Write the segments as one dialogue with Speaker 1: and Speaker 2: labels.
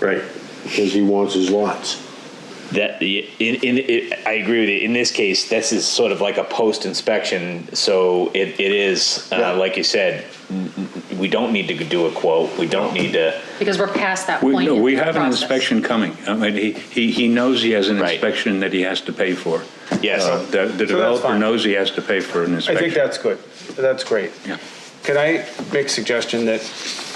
Speaker 1: Right.
Speaker 2: because he wants his lots.
Speaker 3: That in, in it, I agree with you. In this case, this is sort of like a post inspection, so it, it is uh,
Speaker 2: Yeah.
Speaker 3: like you said. n- n- We don't need to do a quote. We don't need to.
Speaker 4: Because we're past that
Speaker 1: We,
Speaker 4: point.
Speaker 1: no,
Speaker 4: in
Speaker 1: we
Speaker 4: the
Speaker 1: have an
Speaker 4: process.
Speaker 1: inspection coming. I mean, he, he, he knows he has an
Speaker 3: Right.
Speaker 1: inspection that he has to pay for.
Speaker 3: Yes.
Speaker 1: Uh, The, the developer
Speaker 5: fine.
Speaker 1: knows he has to pay for an
Speaker 5: I
Speaker 1: inspection.
Speaker 5: think that's good. That's great.
Speaker 1: Yeah.
Speaker 5: Can I make a suggestion that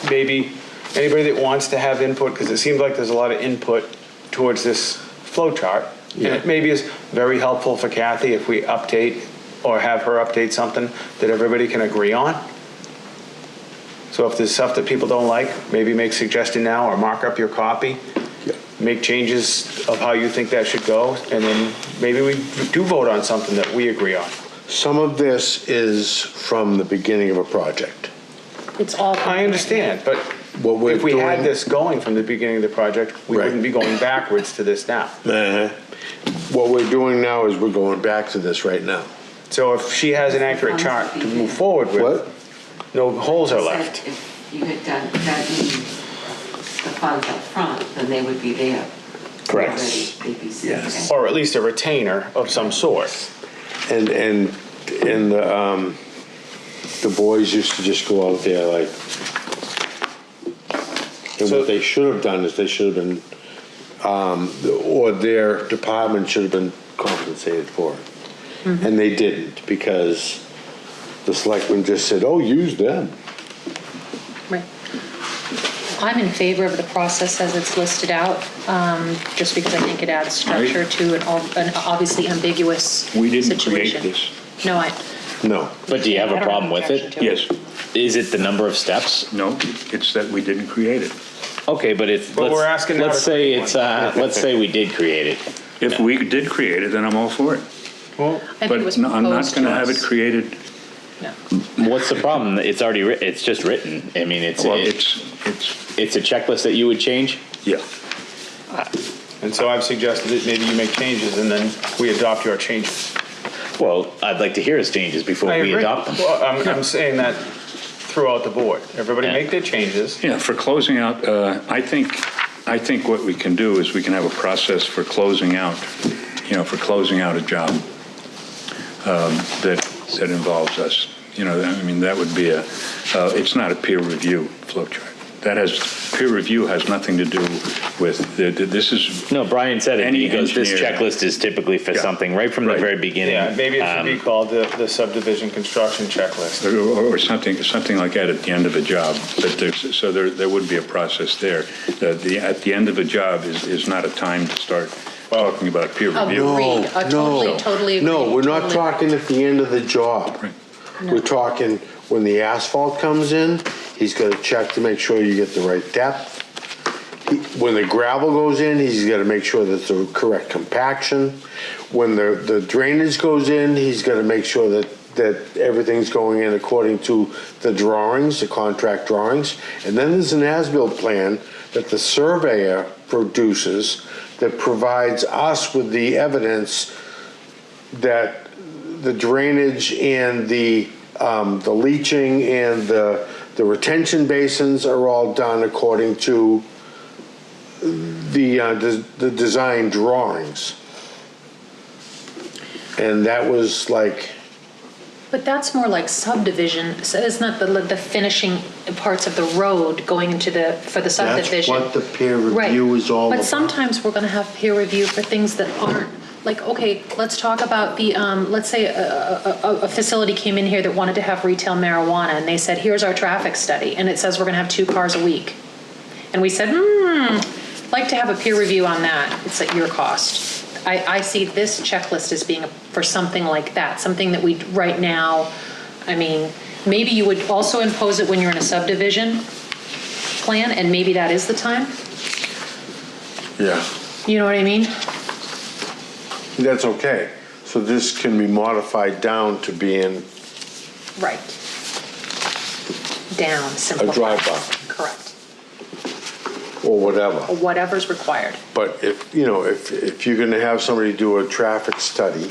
Speaker 5: maybe anybody that wants to have input, because it seems like there's a lot of input towards this flow chart, and
Speaker 2: Yeah.
Speaker 5: it maybe is very helpful for Kathy if we update or have her update something that everybody can agree on? So if there's stuff that people don't like, maybe make suggestion now or mark up your copy. Make changes of how you think that should go, and then maybe we do vote on something that we agree on.
Speaker 2: Some of this is from the beginning of a project.
Speaker 4: It's all.
Speaker 5: I understand, but
Speaker 2: What we're
Speaker 5: if we had
Speaker 2: doing-
Speaker 5: this going from the beginning of the project, we
Speaker 2: Right.
Speaker 5: wouldn't be going backwards to this now.
Speaker 2: What we're doing now is we're going back to this right now.
Speaker 5: So if she has an accurate chart to move forward
Speaker 2: What?
Speaker 5: with, no holes are left.
Speaker 6: Said If you had done, gotten the funds up front, then they would be there.
Speaker 3: Correct.
Speaker 6: already. They'd be set.
Speaker 2: Yes.
Speaker 5: Or at least a retainer of some sort.
Speaker 2: And, and, and, um, the boys used to just go out there like, and
Speaker 5: So-
Speaker 2: what they should have done is they should have been, um, or their department should have been compensated for it.
Speaker 4: Mm-hmm.
Speaker 2: And they didn't because the selectmen just said, oh, use them.
Speaker 4: Right. I'm in favor of the process as it's listed out, um, just because I think it adds structure to an ob- an obviously ambiguous
Speaker 1: We
Speaker 4: situation.
Speaker 1: didn't create this.
Speaker 4: No, I.
Speaker 2: No.
Speaker 3: But do you have
Speaker 4: I
Speaker 3: a
Speaker 4: don't
Speaker 3: problem with
Speaker 4: objection
Speaker 3: it?
Speaker 4: to
Speaker 1: Yes,
Speaker 3: Is it the number of steps?
Speaker 1: no, it's that we didn't create it.
Speaker 3: Okay, but it's.
Speaker 5: But
Speaker 3: let's,
Speaker 5: we're asking how
Speaker 3: Let's
Speaker 5: to
Speaker 3: say
Speaker 5: create one.
Speaker 3: it's. Uh, let's say we did create it.
Speaker 1: If we did create it, then I'm all for it.
Speaker 5: Well,
Speaker 4: I think it was
Speaker 1: But no, I'm not
Speaker 4: proposed
Speaker 1: going to
Speaker 4: to
Speaker 1: have it
Speaker 4: us.
Speaker 1: created,
Speaker 4: No.
Speaker 3: What's the problem? It's already. Writ- it's just written. I mean, it's
Speaker 1: well,
Speaker 3: it's
Speaker 1: it's, it's,
Speaker 3: it's a checklist that you would change.
Speaker 1: yeah.
Speaker 5: and so I've suggested that maybe you make changes and then we adopt your changes.
Speaker 3: Well, I'd like to hear his changes before
Speaker 5: I
Speaker 3: we
Speaker 5: agree.
Speaker 3: adopt them.
Speaker 5: Well, I'm, I'm saying that throughout the board. Everybody
Speaker 3: Yeah.
Speaker 5: make their changes.
Speaker 1: Yeah, for closing out, uh, I think, I think what we can do is we can have a process for closing out, you know, for closing out a job um, that, that involves us. You know, I mean, that would be a, uh, it's not a peer review flow chart. That has, peer review has nothing to do with, the- the- this is,
Speaker 3: No, Brian said it.
Speaker 1: Any
Speaker 3: He goes, this
Speaker 1: engineer-
Speaker 3: checklist is typically for
Speaker 1: Yeah.
Speaker 3: something right from
Speaker 1: Right.
Speaker 3: the very beginning.
Speaker 5: Yeah, maybe it should
Speaker 3: Um,
Speaker 5: be called the, the subdivision construction checklist.
Speaker 1: or or something, something like that at the end of a job, but there's, so there, there would be a process there. The- The, at the end of a job is, is not a time to start talking about peer review.
Speaker 4: Agreed.
Speaker 2: No,
Speaker 4: I totally,
Speaker 2: no.
Speaker 4: totally
Speaker 2: No,
Speaker 4: agree.
Speaker 2: we're not
Speaker 4: Totally.
Speaker 2: talking at the end of the job.
Speaker 1: Right.
Speaker 2: We're talking when the asphalt comes in, he's gonna check to make sure you get the right depth. He- When the gravel goes in, he's gotta make sure that the correct compaction. When the, the drainage goes in, he's gotta make sure that, that everything's going in according to the drawings, the contract drawings. And then there's an as-built plan that the surveyor produces that provides us with the evidence that the drainage and the, um, the leaching and the, the retention basins are all done according to the, uh, the, the design drawings. And that was like,
Speaker 4: But that's more like subdivision, so it's not the, the finishing parts of the road going into the, for the
Speaker 2: that's
Speaker 4: subdivision.
Speaker 2: what the peer
Speaker 4: Right.
Speaker 2: review is all about.
Speaker 4: But sometimes we're going to have peer review for things that aren't, like, okay, let's talk about the, um, let's say a, a, a- a facility came in here that wanted to have retail marijuana, and they said, here's our traffic study, and it says we're going to have two cars a week. And we said, hmm, like to have a peer review on that, it's at your cost. I, I see this checklist as being for something like that, something that we, right now, I mean, maybe you would also impose it when you're in a subdivision plan, and maybe that is the time,
Speaker 2: Yeah,
Speaker 4: you know what I mean?
Speaker 2: that's okay. So this can be modified down to being
Speaker 4: Right. Down, simplify.
Speaker 2: drive-by.
Speaker 4: Correct.
Speaker 2: or whatever.
Speaker 4: Whatever's required.
Speaker 2: But if, you know, if, if you're gonna have somebody do a traffic study,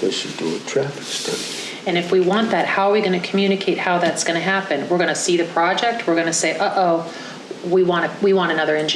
Speaker 2: they should do a traffic study.
Speaker 4: And if we want that, how are we going to communicate how that's going to happen? We're going to see the project, we're going to say, uh-oh, we want, a- we want another engineer